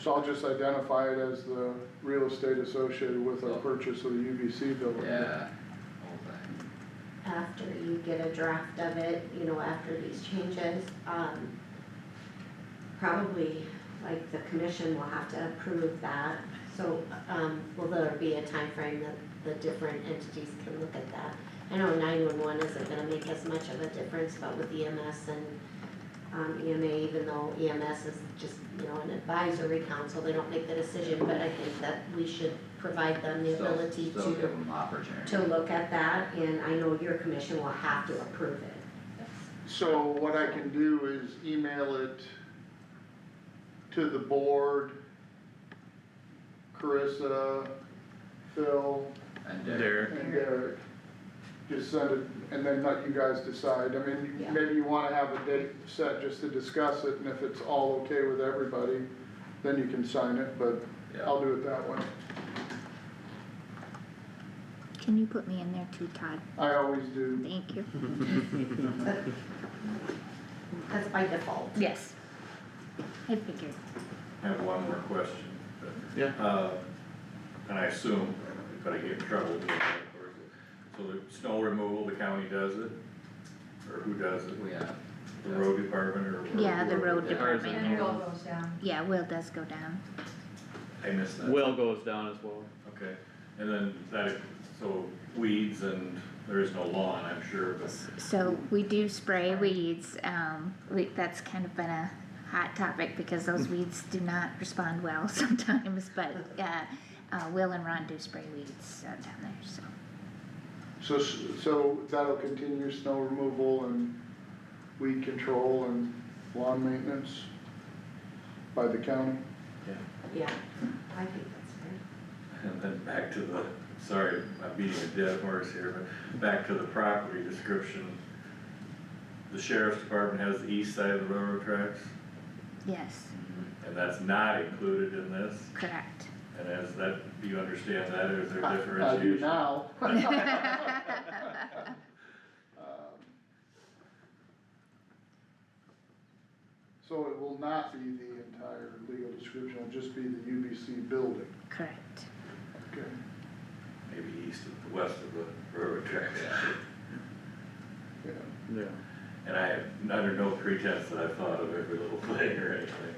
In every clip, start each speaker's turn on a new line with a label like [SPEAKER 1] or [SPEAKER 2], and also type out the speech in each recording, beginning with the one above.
[SPEAKER 1] So I'll just identify it as the real estate associated with our purchase of the UBC building.
[SPEAKER 2] yeah, whole thing.
[SPEAKER 3] after you get a draft of it, you know, after these changes, um. Probably, like, the commission will have to approve that, so, um, will there be a time frame that the different entities can look at that? I know nine-one-one isn't gonna make as much of a difference, but with EMS and, um, EMA, even though EMS is just, you know, an advisory council, they don't make the decision, but I think that we should provide them the
[SPEAKER 2] Still-
[SPEAKER 3] ability to
[SPEAKER 2] Still give them opportunity.
[SPEAKER 3] to look at that, and I know your commission will have to approve it.
[SPEAKER 1] So what I can do is email it to the board, Carissa, Phil,
[SPEAKER 2] And uh, Dick.
[SPEAKER 4] Derek.
[SPEAKER 1] and Derek. Just send it, and then let you guys decide, I mean,
[SPEAKER 3] Yeah.
[SPEAKER 1] maybe you wanna have a date set just to discuss it, and if it's all okay with everybody, then you can sign it, but
[SPEAKER 2] yeah,
[SPEAKER 1] I'll do it that way.
[SPEAKER 5] Can you put me in there too, Todd?
[SPEAKER 1] I always do,
[SPEAKER 5] Thank you.
[SPEAKER 3] That's by default.
[SPEAKER 5] Yes. I figured.
[SPEAKER 6] I have one more question. but,
[SPEAKER 4] Yeah.
[SPEAKER 6] uh, And I assume, if I get in trouble with it, of course. So the snow removal, the county does it? Or who does it?
[SPEAKER 2] we have.
[SPEAKER 6] The road department or? or
[SPEAKER 5] Yeah, the
[SPEAKER 6] whoever?
[SPEAKER 5] road
[SPEAKER 2] Yeah, ours is
[SPEAKER 5] department.
[SPEAKER 7] And it all goes down.
[SPEAKER 5] Yeah, Will does go down.
[SPEAKER 6] I missed that.
[SPEAKER 4] Well goes down as well.
[SPEAKER 6] Okay, and then that, so weeds and there is no lawn, I'm sure, but
[SPEAKER 5] So we do spray weeds, um, we, that's kind of been a hot topic because those weeds do not respond well sometimes, but, uh, uh, Will and Ron do spray weeds uh, down there, so.
[SPEAKER 1] so, s- so that'll continue snow removal and weed control and lawn maintenance by the county.
[SPEAKER 3] Yeah, I think that's
[SPEAKER 6] And then back to the, sorry, I'm beating a dead horse here, but back to the property description. The sheriff's department has the east side of the railroad tracks,
[SPEAKER 5] Yes,
[SPEAKER 6] and that's not included in this,
[SPEAKER 5] correct.
[SPEAKER 6] and as that, do you understand that, or is there
[SPEAKER 1] I do
[SPEAKER 6] differentiation?
[SPEAKER 1] now. Um, So it will not be the entire legal description, it'll just be the UBC building,
[SPEAKER 5] Correct.
[SPEAKER 1] okay?
[SPEAKER 6] Maybe east of, the west of the railroad tracks,
[SPEAKER 1] Yeah.
[SPEAKER 4] Yeah.
[SPEAKER 6] and I, have under no pretense that I've thought of every little thing or anything,
[SPEAKER 3] fair.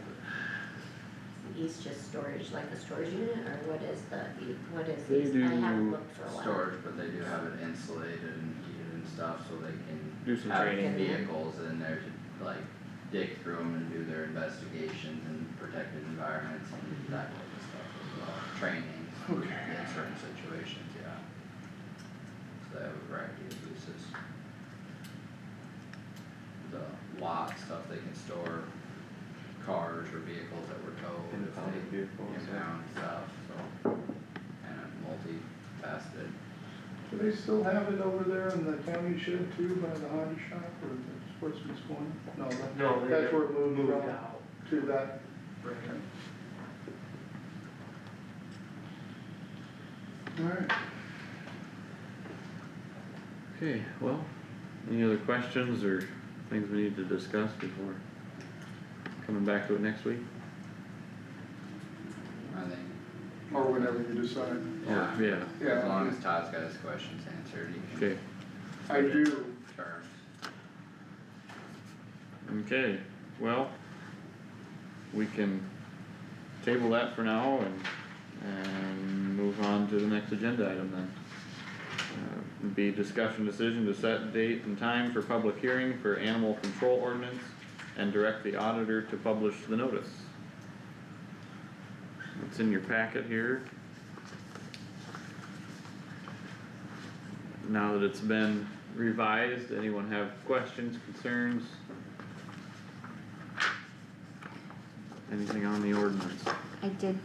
[SPEAKER 3] East just storage, like a storage unit, or what is the, e- what is
[SPEAKER 4] They
[SPEAKER 3] east? I haven't
[SPEAKER 4] do
[SPEAKER 3] looked for a while.
[SPEAKER 2] Storage, but they do have it insulated and heated and stuff, so they can.
[SPEAKER 4] Do some
[SPEAKER 2] have
[SPEAKER 4] training.
[SPEAKER 2] Vehicles in there to like dig through them and do their investigations and protected environments and that type of stuff as well, training.
[SPEAKER 1] Okay.
[SPEAKER 2] In certain situations, yeah. So they have a variety of uses. The lot stuff, they can store cars or vehicles that were towed.
[SPEAKER 4] And
[SPEAKER 2] if
[SPEAKER 4] found
[SPEAKER 2] they-
[SPEAKER 4] vehicles, yeah.
[SPEAKER 2] Impound stuff, so, kind of multifaceted.
[SPEAKER 1] Do they still have it over there in the county shed too, by the hobby shop or the sportsman's corner? No, that-
[SPEAKER 8] No,
[SPEAKER 1] that's
[SPEAKER 8] they
[SPEAKER 1] where it moved
[SPEAKER 8] moved
[SPEAKER 1] from,
[SPEAKER 8] out.
[SPEAKER 1] to that,
[SPEAKER 8] Right.
[SPEAKER 1] alright.
[SPEAKER 4] Okay, well, any other questions or things we need to discuss before coming back to it next week?
[SPEAKER 2] I think,
[SPEAKER 1] Or whenever you decide.
[SPEAKER 2] yeah,
[SPEAKER 4] Yeah,
[SPEAKER 2] as long
[SPEAKER 1] Yeah,
[SPEAKER 2] as Todd's got his questions answered, he can
[SPEAKER 4] okay,
[SPEAKER 1] I do,
[SPEAKER 2] turn.
[SPEAKER 4] okay, well, we can table that for now and, and move on to the next agenda item then. Uh, Be discussion decision to set date and time for public hearing for animal control ordinance and direct the auditor to publish the notice. It's in your packet here. Now that it's been revised, anyone have questions, concerns? Anything on the ordinance?
[SPEAKER 5] I did,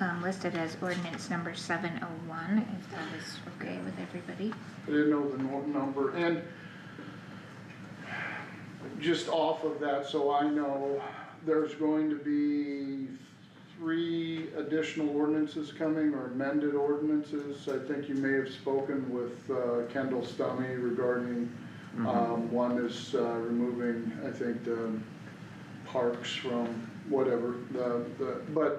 [SPEAKER 5] um, list it as ordinance number seven oh one, if that was okay with everybody.
[SPEAKER 1] I didn't know the nor- number, and just off of that, so I know, there's going to be three additional ordinances coming, or amended ordinances. I think you may have spoken with uh, Kendall Stummy regarding, um, one is uh, removing, I think, the parks from whatever, the, the, but